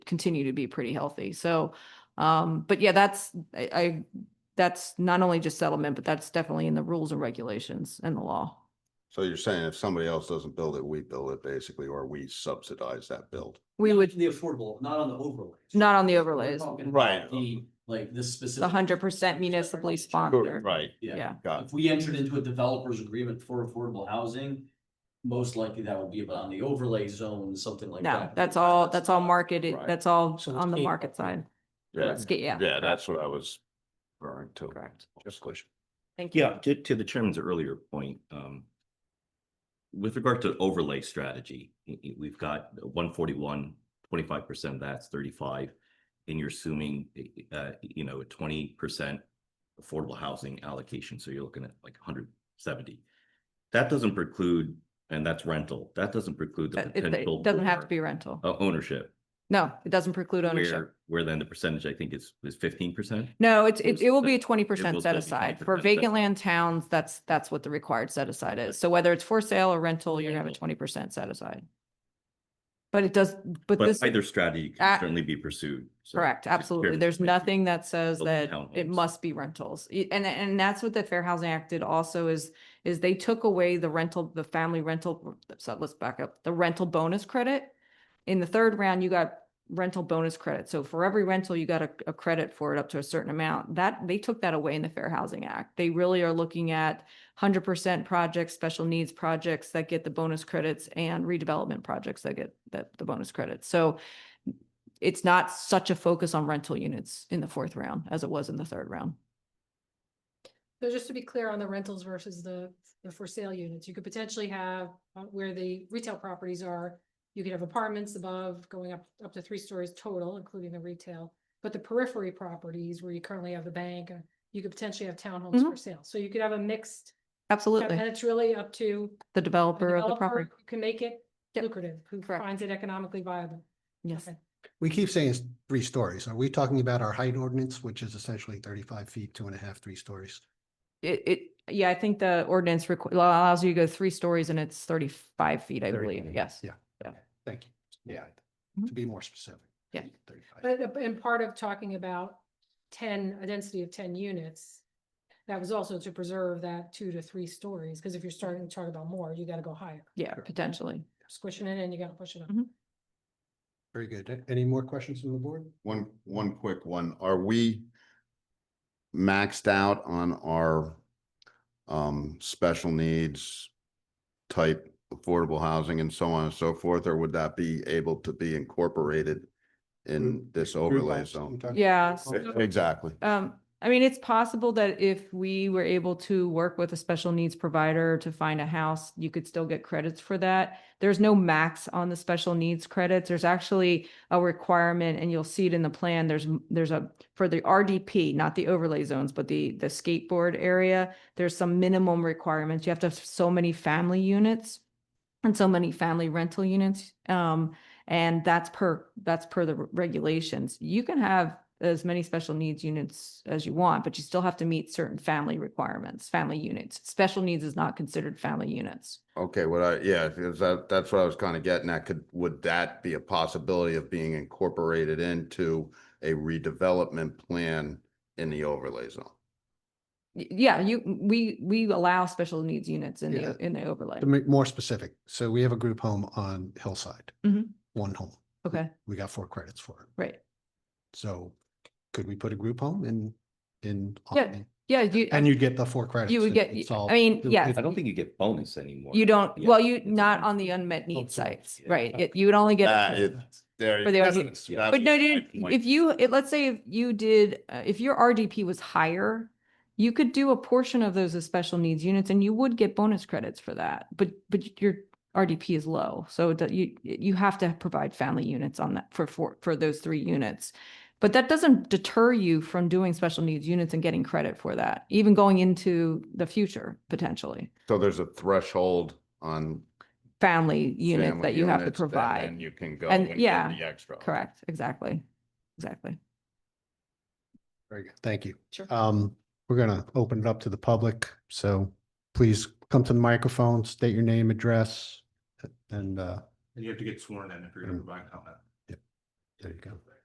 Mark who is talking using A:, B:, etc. A: continue to be pretty healthy. So, um, but yeah, that's, I, I, that's not only just settlement, but that's definitely in the rules and regulations and the law.
B: So you're saying if somebody else doesn't build it, we build it basically, or we subsidize that build?
A: We would,
C: The affordable, not on the overlays.
A: not on the
C: We're
A: overlays,
C: talking about
B: Right.
C: The, like this specific.
A: the hundred percent municipally sponsored.
B: Right.
A: Yeah.
B: Got
C: If we entered into a developer's agreement for affordable housing, most likely that would be about on the overlay zone, something like that.
A: No, that's all, that's all marketed,
B: Right.
A: that's all
D: So it's
A: on the
D: gate-
A: market side.
B: Yeah,
A: It's ga- yeah,
B: yeah, that's what I was referring to.
A: correct.
B: Just question.
A: Thank you.
E: Yeah, to, to the chairman's earlier point, um, with regard to overlay strategy, y- y- we've got 141, 25 percent, that's thirty-five. And you're assuming, uh, you know, twenty percent affordable housing allocation, so you're looking at like hundred seventy. That doesn't preclude, and that's rental, that doesn't preclude the
A: But Uh, It
E: potential.
A: it doesn't have to
E: for,
A: be rental.
E: uh, ownership,
A: No, it doesn't preclude ownership.
E: where, where then the percentage, I think, is, is fifteen percent?
A: No, it's, it,
E: Is
A: it will
E: that-
A: be a twenty
E: will
A: percent
E: still
A: set
E: be
A: aside. For
E: 20%, but-
A: vacant land towns, that's, that's what the required set aside is. So whether it's for sale or rental, you're gonna have a
E: Rental.
A: twenty percent set aside. But it does, but
E: But
A: this,
E: either strategy
A: Ah,
E: can certainly be pursued. so
A: correct,
E: just
A: absolutely.
E: curious.
A: There's
E: Thank you.
A: nothing that says
E: Built
A: that it
E: townhomes.
A: must be rentals. Y- And, and that's what the Fair Housing Act did also is, is they took away the rental, the family rental, so let's back up, the rental bonus credit. In the third round, you got rental bonus credit. So for every rental, you got a, a credit for it up to a certain amount. That, they took that away in the Fair Housing Act. They really are looking at hundred percent projects, special needs projects that get the bonus credits and redevelopment projects that get the, the bonus credits. So it's not such a focus on rental units in the fourth round as it was in the third round.
F: So just to be clear on the rentals versus the, the for sale units, you could potentially have, uh, where the retail properties are, you could have apartments above going up, up to three stories total, including the retail. But the periphery properties where you currently have the bank, uh, you could potentially have townhomes for sale. So you could have a mixed,
A: Mm-hmm.
F: and
A: Absolutely.
F: it's really up to
A: The
F: the
A: developer of the
F: developer
A: property.
F: who can make it
A: Yep,
F: lucrative, who
A: correct.
F: finds it economically viable.
A: Yes.
F: Okay.
D: We keep saying it's three stories. Are we talking about our height ordinance, which is essentially thirty-five feet, two and a half, three stories?
A: It, it, yeah, I think the ordinance requ- allows you to go three stories and it's thirty-five feet, I
D: 30,
A: believe. Yes.
D: Yeah.
A: Yeah.
D: Okay, Thank you. Yeah.
A: Mhm.
D: To be more specific.
A: Yeah.
D: 35.
F: But, uh, and part of talking about ten, a density of ten units, that was also to preserve that two to three stories, because if you're starting to talk about more, you gotta go higher.
A: Yeah, potentially.
F: Squishing it in, you gotta push it up.
A: Mhm.
D: Very good. A- Any more questions from the board?
B: One, one quick one. Are we maxed out on our um, special needs type affordable housing and so on and so forth, or would that be able to be incorporated in
D: Group-
B: this
D: group
B: overlay
D: homes, I'm
B: zone? E-,
D: talking-
A: Yeah,
D: Oh,
A: so-
B: Exactly.
A: Um, I mean, it's possible that if we were able to work with a special needs provider to find a house, you could still get credits for that. There's no max on the special needs credits. There's actually a requirement and you'll see it in the plan. There's, m- there's a, for the RDP, not the overlay zones, but the, the skateboard area, there's some minimum requirements. You have to have so many family units and so many family rental units. Um, and that's per, that's per the re- regulations. You can have as many special needs units as you want, but you still have to meet certain family requirements, family units. Special needs is not considered family units.
B: Okay, what I, yeah, because that, that's what I was kind of getting at. Could, would that be a possibility of being incorporated into a redevelopment plan in the overlay zone?
A: Y- Yeah, you, we, we allow special needs units in
D: Yeah.
A: the, in the overlay.
D: To make more specific, so we have a group home on Hillside.
A: Mhm.
D: One home.
A: Okay,
D: We got four credits for it.
A: right.
D: So could we put a group home in, in?
A: Yeah,
D: Albany?
A: Yeah, you,
D: And you'd get the four credits.
A: would
D: It-
A: get-
D: it's
A: I
D: all-
A: mean,
D: it-
A: yes.
D: it-
E: I don't think you get bonus anymore.
A: you don't,
E: Yeah.
A: well, you, not on the unmet need
D: so-
A: sites,
E: yeah,
A: right?
D: okay.
A: It- You would only get.
B: Uh, it- There.
A: For the
B: that's-
A: RDP.
B: that's
A: But no,
B: my
A: dude,
E: point.
A: if you, it, let's say if you did, uh, if your RDP was higher, you could do a portion of those as special needs units and you would get bonus credits for that, but, but your RDP is low, so it do- you, you have to provide family units on that for, for, for those three units. But that doesn't deter you from doing special needs units and getting credit for that, even going into the future potentially.
B: So there's a threshold on.
A: Family unit
B: family
A: that you have to
B: units, and then
A: provide,
B: You can go.
A: And-
B: and get
A: yeah,
B: The extra.
A: correct, exactly, exactly.
D: Very good. Thank you.
A: Sure.
D: Um, we're gonna open it up to the public, so please come to the microphone, state your name, address, and, uh,
G: And you have to get sworn in if you're gonna provide comment.
D: Yep. There you go.